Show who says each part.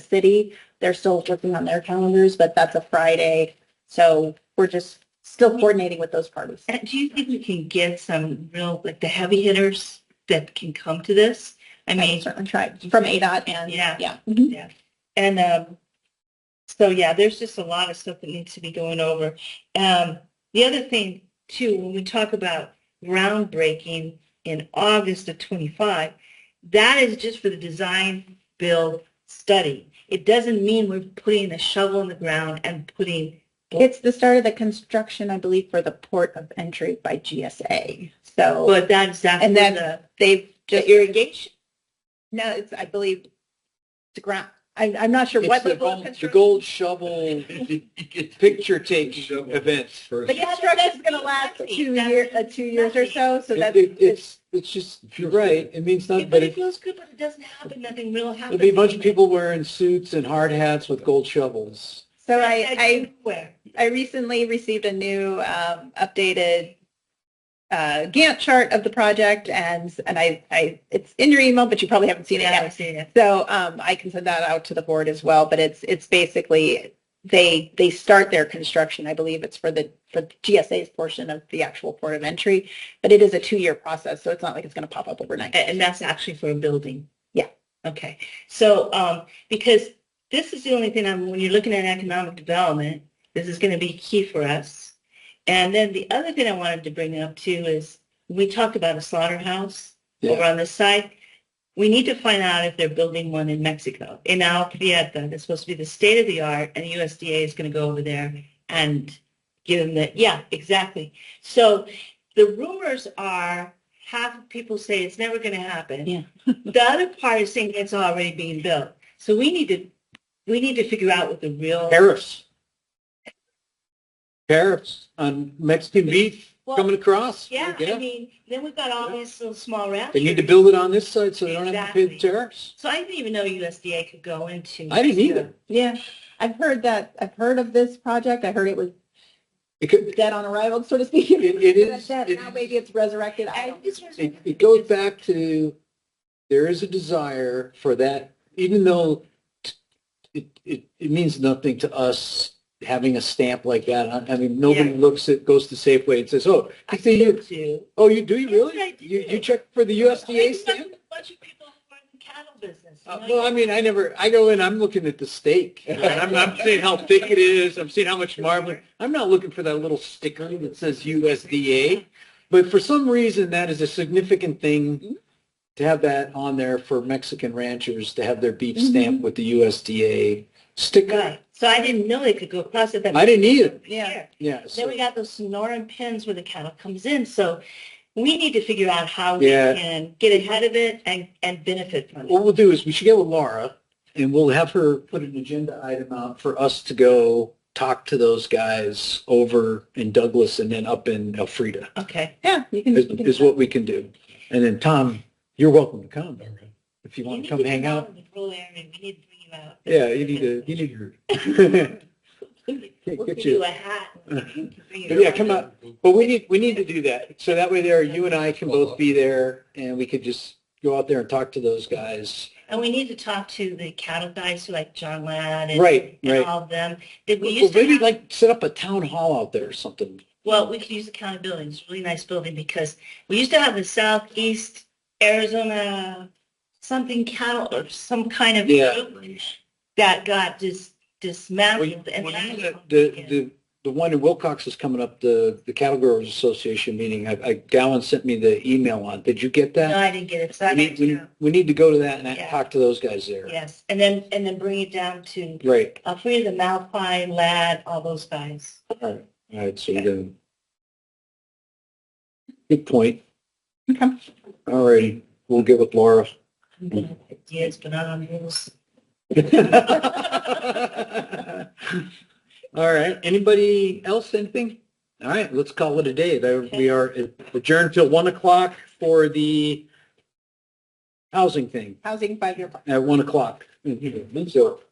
Speaker 1: city. They're still working on their calendars, but that's a Friday. So we're just still coordinating with those parties.
Speaker 2: And do you think we can get some real, like the heavy hitters that can come to this? I
Speaker 1: I mean,
Speaker 2: mean,
Speaker 1: certainly tried from ADOT and
Speaker 2: Yeah.
Speaker 1: yeah. Mm-hmm.
Speaker 2: and, um, so yeah, there's just a lot of stuff that needs to be going over. Um, the other thing too, when we talk about groundbreaking in August of 25, that is just for the design build study. It doesn't mean we're putting a shovel in the ground and putting
Speaker 1: It's the start of the construction, I believe, for the port of entry by GSA. So
Speaker 2: But that's that's
Speaker 1: And
Speaker 2: for
Speaker 1: then
Speaker 2: the,
Speaker 1: they've
Speaker 2: the
Speaker 1: just,
Speaker 2: irrigation.
Speaker 1: no, it's, I believe, the ground, I, I'm not sure
Speaker 3: It's
Speaker 1: what
Speaker 3: the
Speaker 1: level of
Speaker 3: gold- The
Speaker 1: construction.
Speaker 3: gold shovel picture take event.
Speaker 1: The construction is going to last two years, uh, two years or so. So
Speaker 3: It-
Speaker 1: that's,
Speaker 3: it- It's, it's just, you're right, it means
Speaker 2: Yeah,
Speaker 3: nothing,
Speaker 2: but
Speaker 3: but
Speaker 2: it
Speaker 3: it-
Speaker 2: feels good, but it doesn't happen. Nothing real happens.
Speaker 3: it'll be a bunch of people wearing suits and hard hats with gold shovels.
Speaker 1: so I, I
Speaker 2: Where?
Speaker 1: I recently received a new um, updated uh, Gantt chart of the project, and and I, I it's in your email, but you probably haven't seen it
Speaker 2: Yeah, I
Speaker 1: yet.
Speaker 2: see it.
Speaker 1: So um, I can send that out to the board as well. But it's it's basically they they start their construction. I believe it's for the for GSA's portion of the actual port of entry, but it is a two year process, so it's not like it's going to pop up overnight.
Speaker 2: And and that's actually for a building.
Speaker 1: Yeah.
Speaker 2: Okay. So, um, because this is the only thing I'm, when you're looking at economic development, this is going to be key for us. And then the other thing I wanted to bring up too is we talked about a slaughterhouse
Speaker 3: Yeah.
Speaker 2: over on this side. We need to find out if they're building one in Mexico, in Alprieta. It's supposed to be the state of the art and the USDA is going to go over there and give them the, yeah, exactly. So the rumors are half of people say it's never going to happen.
Speaker 1: Yeah.
Speaker 2: the other part is saying it's already being built. So we need to, we need to figure out what the real.
Speaker 3: Tariffs. Tariffs on Mexican beef
Speaker 2: Well,
Speaker 3: coming across.
Speaker 2: Yeah, I mean, then we've got all these little small ranchers.
Speaker 3: They need to build it on this side so they don't have to pay the
Speaker 2: Exactly.
Speaker 3: tariffs.
Speaker 2: So I didn't even know USDA could go into.
Speaker 3: I didn't either.
Speaker 1: Yeah, I've heard that. I've heard of this project. I heard it was
Speaker 3: It could,
Speaker 1: dead on arrival, so to speak.
Speaker 3: It- it is-
Speaker 1: That-
Speaker 3: it
Speaker 1: now
Speaker 3: is.
Speaker 1: maybe it's resurrected. I
Speaker 2: I
Speaker 1: don't
Speaker 2: just was-
Speaker 3: it, it goes back to, there is a desire for that, even though t- it, it, it means nothing to us having a stamp like that. on- I mean, nobody
Speaker 2: Yeah.
Speaker 3: looks at, goes to Safeway and says, oh,
Speaker 2: I
Speaker 3: you say you,
Speaker 2: did too.
Speaker 3: oh, you, do you
Speaker 2: Yes,
Speaker 3: really?
Speaker 2: I
Speaker 3: You,
Speaker 2: do.
Speaker 3: you check for the
Speaker 2: I
Speaker 3: USDA
Speaker 2: talked
Speaker 3: stamp?
Speaker 2: to A bunch of people who are in the cattle business. you
Speaker 3: Uh,
Speaker 2: know,
Speaker 3: Well, I mean, I never, I go in, I'm looking at the steak. And I'm, I'm seeing how thick it is. I'm seeing how much marbling. I'm not looking for that little sticker that says USDA. But for some reason, that is a significant thing to have that on there for Mexican ranchers to have their beef stamped with the USDA sticker.
Speaker 2: Right. So I didn't know they could go across it. that-
Speaker 3: I didn't either.
Speaker 1: Yeah.
Speaker 3: Yeah.
Speaker 2: Then
Speaker 3: so-
Speaker 2: we got those Sonoran pins where the cattle comes in. So we need to figure out how we
Speaker 3: Yeah.
Speaker 2: can get ahead of it and, and benefit from it.
Speaker 3: What we'll do is we should get with Laura and we'll have her put an agenda item out for us to go talk to those guys over in Douglas and then up in Elfrida.
Speaker 2: Okay.
Speaker 1: Yeah, you can.
Speaker 3: is,
Speaker 1: you can-
Speaker 3: is what we can do. And then Tom, you're welcome to come if you
Speaker 2: We
Speaker 3: want
Speaker 2: need
Speaker 3: to come hang
Speaker 2: get
Speaker 3: out.
Speaker 2: in the rural area. We need to bring you out.
Speaker 3: Yeah, you need to, you need to.
Speaker 2: We'll
Speaker 3: Get
Speaker 2: give
Speaker 3: you-
Speaker 2: you a hat. and bring you
Speaker 3: But yeah,
Speaker 2: around.
Speaker 3: come out. But we need, we need to do that. So that way there, you and I can both be there and we could just go out there and talk to those guys.
Speaker 2: And we need to talk to the cattle guys who like John Ladd and,
Speaker 3: Right,
Speaker 2: and
Speaker 3: right.
Speaker 2: all of them. That we
Speaker 3: Well,
Speaker 2: used to
Speaker 3: maybe
Speaker 2: have,
Speaker 3: like set up a town hall out there or something.
Speaker 2: well, we could use the county building. It's a really nice building because we used to have the Southeast Arizona something cattle or some kind of
Speaker 3: Yeah.
Speaker 2: group that got dis, dismantled. and
Speaker 3: The, the, the one in Wilcox is coming up, the, the Cattle Growers Association meeting. I, I, Gowan sent me the email on. Did you get
Speaker 2: no,
Speaker 3: that?
Speaker 2: I didn't get it. So I
Speaker 3: We
Speaker 2: need
Speaker 3: need, we,
Speaker 2: to,
Speaker 3: we need to go to that and
Speaker 2: Yeah.
Speaker 3: talk to those guys there.
Speaker 2: yes, and then and then bring it down to
Speaker 3: Right.
Speaker 2: uh, free the Malpine Lad, all those guys.
Speaker 3: All right. All right. So we're going Good point.
Speaker 1: Okay.
Speaker 3: All righty. We'll get with Laura. Mm-hmm.
Speaker 2: Ideas, but not on rules.
Speaker 3: All right. Anybody else? Anything? All right. Let's call it a day. There, we are adjourned till one o'clock for the housing thing
Speaker 1: Housing five-year. plan.
Speaker 3: at one o'clock. So